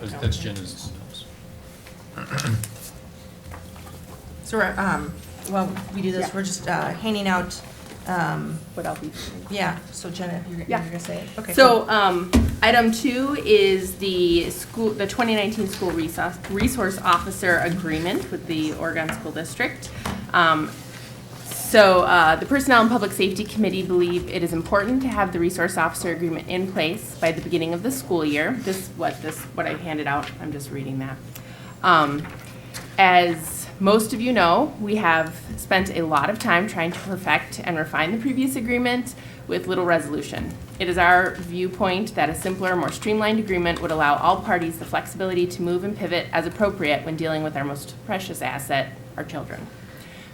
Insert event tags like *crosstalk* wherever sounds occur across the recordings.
That's- That's Jenna's. So we're, um, well, we do this, Yeah. we're just uh, handing out, um, what I'll be. yeah, so Jenna, you're you're Yeah. gonna say it? Okay, So, cool. um, item two is the school, the 2019 school resource, resource officer agreement with the Oregon School District. Um, So uh, the Personnel and Public Safety Committee believe it is important to have the resource officer agreement in place by the beginning of the school year. This, what this, what I handed out, I'm just reading that. Um, As most of you know, we have spent a lot of time trying to perfect and refine the previous agreement with little resolution. It is our viewpoint that a simpler, more streamlined agreement would allow all parties the flexibility to move and pivot as appropriate when dealing with our most precious asset, our children.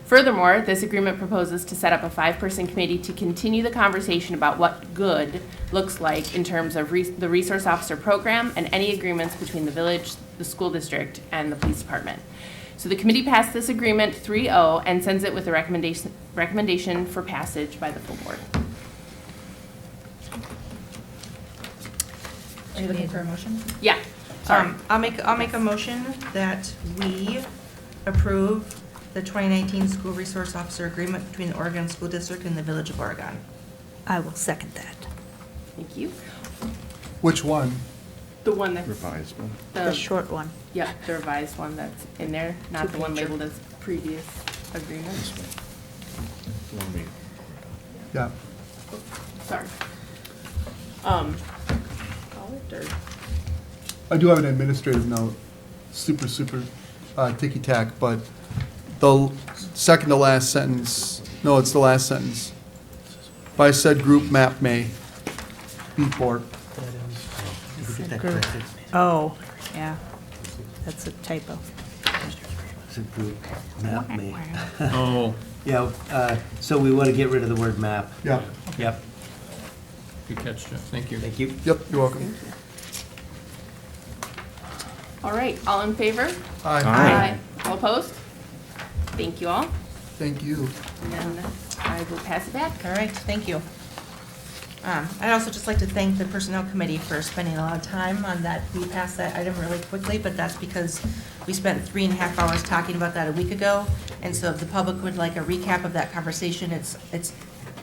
Furthermore, this agreement proposes to set up a five-person committee to continue the conversation about what good looks like in terms of res- the resource officer program and any agreements between the village, the school district, and the police department. So the committee passed this agreement 3-0 and sends it with a recommendation, recommendation for passage by the full board. Are you looking for a motion? Yeah, sorry. Um, I'll make, I'll make a motion that we approve the 2019 School Resource Officer Agreement between the Oregon School District and the Village of Oregon. I will second that. Thank you. Which one? The one that's, Revised one. The the, short one. yeah, the revised one that's in there, not the one Two-pager. labeled as previous agreement. This one. Let me- Yeah. Sorry. Um, call it or? I do have an administrative note, super, super uh, ticky-tack, but the l- second to last sentence, no, it's the last sentence. By said group map may be for, Oh, yeah. That's a typo. It's a group map me. Oh, Yeah, uh, so we want to get rid of the word map. yeah, Yep, good catch, Jeff. Thank you. thank you. yep, you're welcome. All right, all in favor? Aye, Aye. All opposed? Thank you all, thank you. and then I will pass it back. All right, thank you. Um, I'd also just like to thank the Personnel Committee for spending a lot of time on that. We passed that item really quickly, but that's because we spent three and a half hours talking about that a week ago. And so if the public would like a recap of that conversation, it's, it's,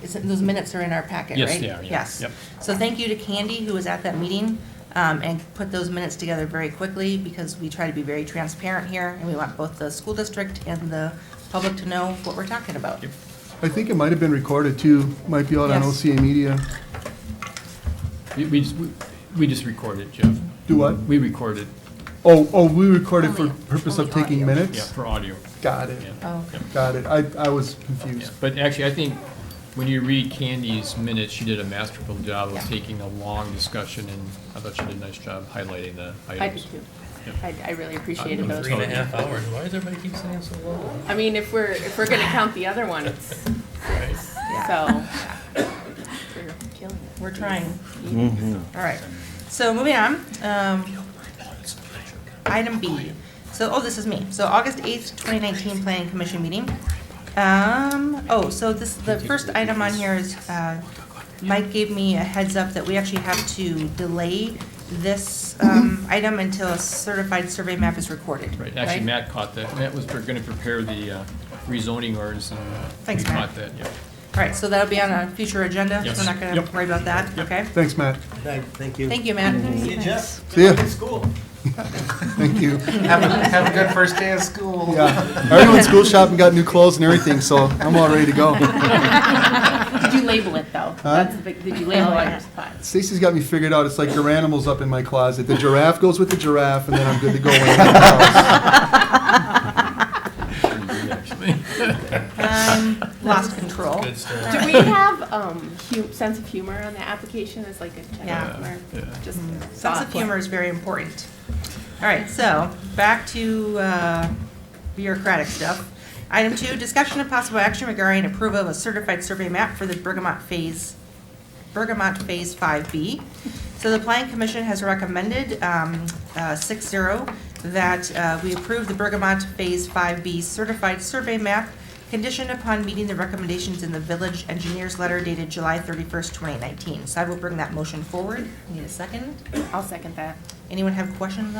it's, those minutes are in our packet, Yes, right? they are, yeah. Yes. Yep. So thank you to Candy, who was at that meeting, um, and put those minutes together very quickly, because we try to be very transparent here, and we want both the school district and the public to know what we're talking about. Yep. I think it might have been recorded too, might be out on Yes. OCA Media. We- We just, we- we just record it, Jeff. Do what? We record it, Oh, oh, we recorded for Only- purpose of only taking audio. yeah, minutes? for audio. Got Yeah, it, Oh. yeah, got it, I, I was yeah. confused. But actually, I think when you read Candy's minutes, she did a masterful job Yeah. of taking a long discussion, and I thought she did a nice job highlighting the I do items. too. Yep. I, I really appreciated I'm those. three and a half hours, why does everybody keep saying so long? I mean, if we're, if we're gonna count the other one, it's, *laughs* so. We're killing it. We're trying. All right, so moving on, um, item B. So, oh, this is me. So August eighth, twenty nineteen Planning Commission meeting. Um, oh, so this, the first item on here is, uh, Mike gave me a heads up that we actually have to delay this, um, item until a certified survey map is recorded. Right, actually, Matt caught that. Matt was going to prepare the uh, rezoning orders, and uh, we Thanks, Matt. caught that, yeah. All right, so that'll be on a future agenda, so Yes. we're not gonna Yep. worry about that, Yep. Mm-hmm. okay? Thanks, Matt, Thank thank you. Thank you, Matt. See you, Jeff. See ya. Good school. thank you. Have a, have a good first day of school. Yeah, I already went school shopping, got new clothes and everything, so I'm all ready to go. Did you label it though? That's the big, did you label it or spot? Stacy's got me figured out. It's like your animals up in my closet. The giraffe goes with the giraffe, and then I'm good to go. When I'm out of the house. Pretty good, actually. Um, lost control. Good stuff. Do we have, um, hu- sense of humor on the application as like a Yeah. check mark? Yeah. Just Sense thought. of humor is very important. All right, so back to uh, bureaucratic stuff. Item two, discussion of possible action regarding approval of a certified survey map for the Bergamot Phase, Bergamot Phase 5B. So the Planning Commission has recommended um, uh, 6-0 that uh, we approve the Bergamot Phase 5B certified survey map conditioned upon meeting the recommendations in the village engineer's letter dated July 31st, 2019. So I will bring that motion forward. Need a second? I'll second that. Anyone have questions